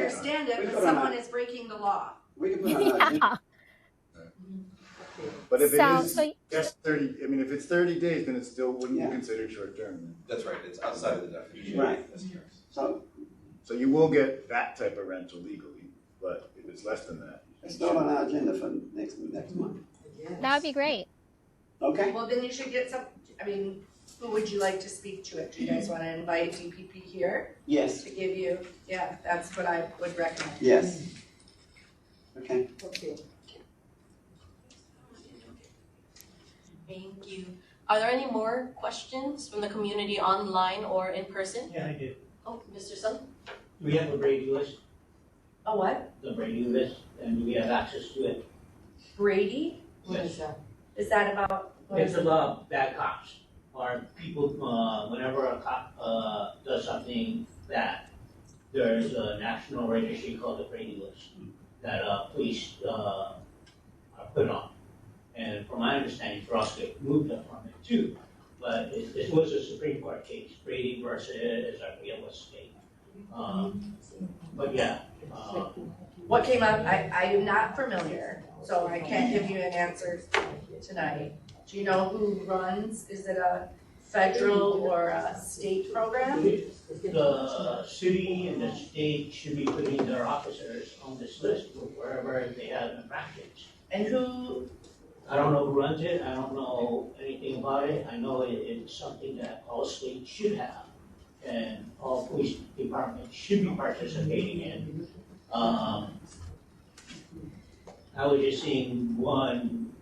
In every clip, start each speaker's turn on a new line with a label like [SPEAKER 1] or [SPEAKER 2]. [SPEAKER 1] understand it,
[SPEAKER 2] We
[SPEAKER 1] but
[SPEAKER 2] put on
[SPEAKER 1] someone
[SPEAKER 2] a-
[SPEAKER 1] is breaking the law.
[SPEAKER 2] We can put on an agenda.
[SPEAKER 3] Yeah.
[SPEAKER 4] But if it
[SPEAKER 3] So-
[SPEAKER 4] is
[SPEAKER 3] so-
[SPEAKER 4] just thirty, I mean, if it's thirty days, then it still wouldn't
[SPEAKER 2] Yeah.
[SPEAKER 4] be considered short term.
[SPEAKER 5] That's right, it's outside of the definition.
[SPEAKER 2] Right.
[SPEAKER 5] That's correct.
[SPEAKER 2] So
[SPEAKER 4] So you will get that type of rental legally, but if it's less than that.
[SPEAKER 2] it's not on our agenda for next, next month.
[SPEAKER 3] That would be great.
[SPEAKER 2] Okay?
[SPEAKER 1] Well, then you should get some, I mean, who would you like to speak to it? Do you guys wanna invite DPP here
[SPEAKER 2] Yes.
[SPEAKER 1] to give you, yeah, that's what I would recommend.
[SPEAKER 2] Yes. Okay.
[SPEAKER 1] Okay.
[SPEAKER 6] Thank you. Are there any more questions from the community online or in person?
[SPEAKER 7] Yeah, I do.
[SPEAKER 6] Oh, Mr. Sun?
[SPEAKER 7] Do we have a Brady list,
[SPEAKER 1] A what?
[SPEAKER 7] the Brady list, and do we have access to it?
[SPEAKER 1] Brady?
[SPEAKER 7] What is
[SPEAKER 1] that? Is that about? what
[SPEAKER 7] It's
[SPEAKER 1] is it?
[SPEAKER 7] about bad cops, or people, uh, whenever a cop, uh, does something bad, there's a national registry called the Brady list that, uh, police, uh, are put on. And from my understanding, Frosty moved up on it too, but it, it was a Supreme Court case, Brady versus, I forget what state. Um, but yeah, uh,
[SPEAKER 1] What came up, I, I am not familiar, so I can't give you an answer tonight. Do you know who runs, is it a federal or a state program?
[SPEAKER 7] The city and the state should be putting their officers on this list wherever they have infractions.
[SPEAKER 1] And who,
[SPEAKER 7] I don't know who runs it, I don't know anything about it, I know it, it's something that all states should have. And all police departments should be participating in. Um, I was just seeing one,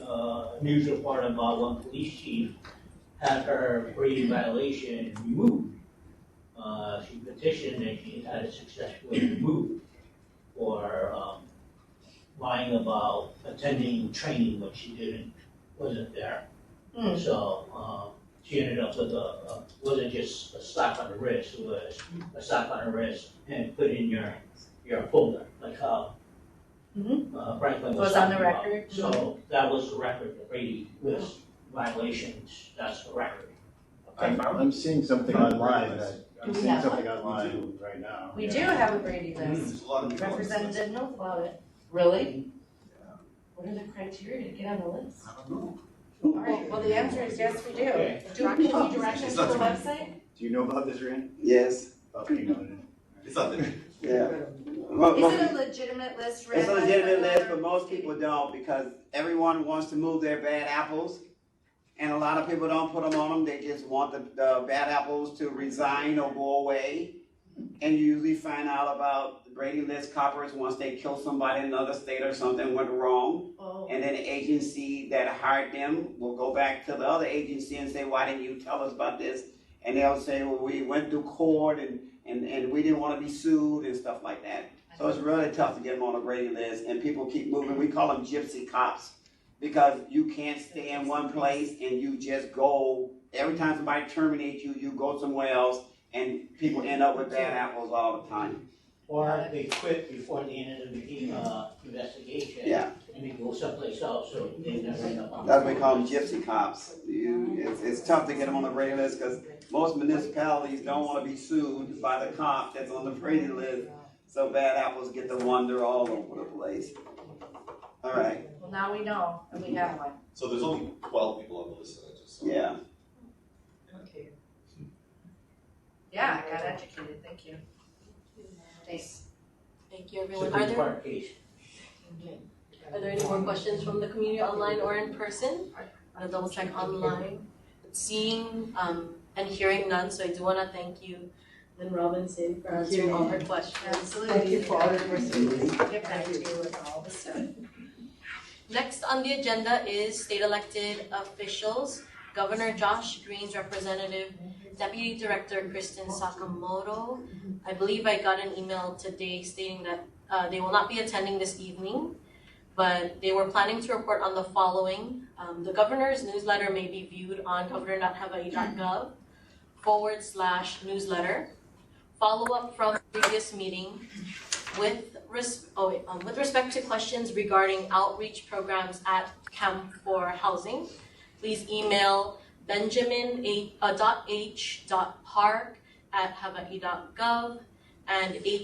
[SPEAKER 7] uh, news report about one police chief had her Brady violation removed uh, she petitioned and she had it successfully removed for, um, lying about attending training when she didn't, wasn't there.
[SPEAKER 1] Hmm.
[SPEAKER 7] So, um, she ended up with a, a- wasn't just a slap on the wrist, it was a slap on the wrist and put in your, your folder, like how
[SPEAKER 1] Mhm.
[SPEAKER 7] uh, Franklin was
[SPEAKER 1] Was on the
[SPEAKER 7] talking about.
[SPEAKER 1] record?
[SPEAKER 7] So that was the record, the Brady list violations, that's the record.
[SPEAKER 4] I'm, I'm seeing something
[SPEAKER 5] Found
[SPEAKER 4] online
[SPEAKER 5] this.
[SPEAKER 4] that, I'm
[SPEAKER 6] Do we
[SPEAKER 4] seeing
[SPEAKER 6] have
[SPEAKER 4] something
[SPEAKER 6] one?
[SPEAKER 4] online right now.
[SPEAKER 1] we
[SPEAKER 4] yeah.
[SPEAKER 1] do have a Brady list,
[SPEAKER 5] There's a lot of people on this list.
[SPEAKER 1] Representative knows about it. Really? What are the criteria to get on the list?
[SPEAKER 5] I don't know.
[SPEAKER 1] All right, well, the answer is yes, we do.
[SPEAKER 7] Okay.
[SPEAKER 1] Do we need directions to the website?
[SPEAKER 4] Do you know about this, Rand?
[SPEAKER 2] Yes.
[SPEAKER 4] About being on it?
[SPEAKER 5] It's not that.
[SPEAKER 2] Yeah. Mo-
[SPEAKER 1] Is
[SPEAKER 2] mo-
[SPEAKER 1] it a legitimate list, Rick?
[SPEAKER 2] It's a legitimate list, but most people don't because everyone wants to move their bad apples. And a lot of people don't put them on them. They just want the, the bad apples to resign or go away. And you usually find out about the Brady List coppers once they kill somebody in another state or something went wrong.
[SPEAKER 1] Oh.
[SPEAKER 2] And then the agency that hired them will go back to the other agency and say, why didn't you tell us about this? And they'll say, well, we went through court and, and, and we didn't wanna be sued and stuff like that. So it's really tough to get them on a Brady list and people keep moving. We call them gypsy cops. Because you can't stay in one place and you just go, every time somebody terminates you, you go somewhere else and people end up with bad apples all the time.
[SPEAKER 7] Or they quit before the end of the uh, investigation.
[SPEAKER 2] Yeah,
[SPEAKER 7] And they go someplace else, so they never end up on.
[SPEAKER 2] That's what we call them gypsy cops. You, it's, it's tough to get them on the Brady list because most municipalities don't want to be sued by the cop that's on the Brady list. So bad apples get to wander all over the place. All right,
[SPEAKER 1] Well, now we know, and we have one.
[SPEAKER 5] So there's only twelve people on the list, and I just. saw.
[SPEAKER 2] yeah.
[SPEAKER 1] Yeah, I got educated, thank you. Thanks.
[SPEAKER 6] Thank you, everyone. Are
[SPEAKER 7] Supreme
[SPEAKER 6] there,
[SPEAKER 7] Court case.
[SPEAKER 6] are there any more questions from the community online or in person? I'm gonna double check online. Seeing, um, and hearing none, so I do wanna thank you, Lynn Robinson, for answering all her questions.
[SPEAKER 1] Absolutely. Thank you for all your work. Get back to
[SPEAKER 6] Thank
[SPEAKER 1] you with all the stuff.
[SPEAKER 6] Next on the agenda is state elected officials. Governor Josh Green's representative, Deputy Director Kristen Sakamoto. I believe I got an email today stating that uh, they will not be attending this evening, but they were planning to report on the following. Um, The governor's newsletter may be viewed on governor.hawaii.gov forward slash newsletter. Follow up from previous meeting, with res- oh, wait, um, with respect to questions regarding outreach programs at Camp for Housing, please email benjamin a, uh, dot h dot park at hawaii dot gov and h